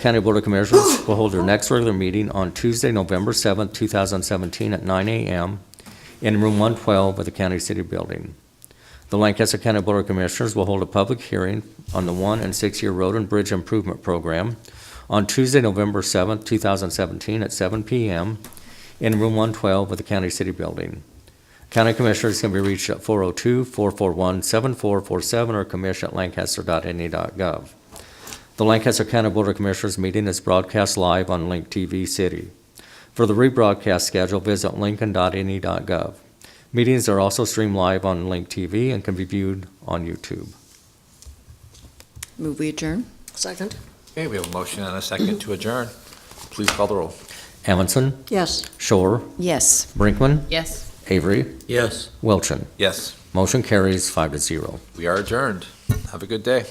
County Board of Commissioners will hold their next regular meeting on Tuesday, November 7th, 2017, at 9 a.m. in Room 112 of the County City Building. The Lancaster County Board of Commissioners will hold a public hearing on the one and six-year road and bridge improvement program on Tuesday, November 7th, 2017, at 7 p.m. in Room 112 of the County City Building. County Commissioners can be reached at 402-441-7447 or E commish@lancaster.ne.gov. The Lancaster County Board of Commissioners meeting is broadcast live on Link TV City. For the rebroadcast schedule, visit lincoln.ne.gov. E Meetings are also streamed live on Link TV and can be viewed on YouTube. Move we adjourn? Second? Okay, we have a motion and a second to adjourn. Please call the roll. Amundson, Yes. Shore, Yes. Brinkman, Yes. Avery, Yes. Wilchin. Yes, Motion carries five to zero. we are adjourned. Have a good day.